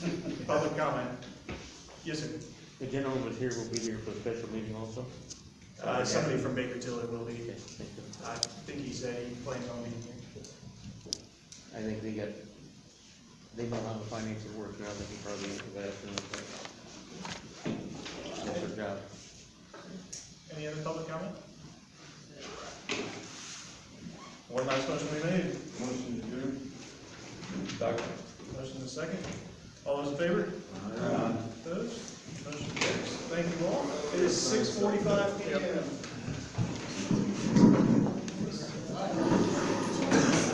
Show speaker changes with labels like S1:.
S1: Public comment. Yes, sir.
S2: The gentleman was here, will be here for the special meeting also?
S1: Uh, somebody from Baker Tilly will be.
S2: Okay, thank you.
S1: I think he said he plans on being here.
S2: I think they got, they know how the finances work now, they can probably answer that in a bit. That's their job.
S1: Any other public comment? One last motion we made.
S3: Motion adjourned. Second.
S1: Motion in a second. All those in favor? Opposed? Motion carries. Thank you all. It is six forty-five P M.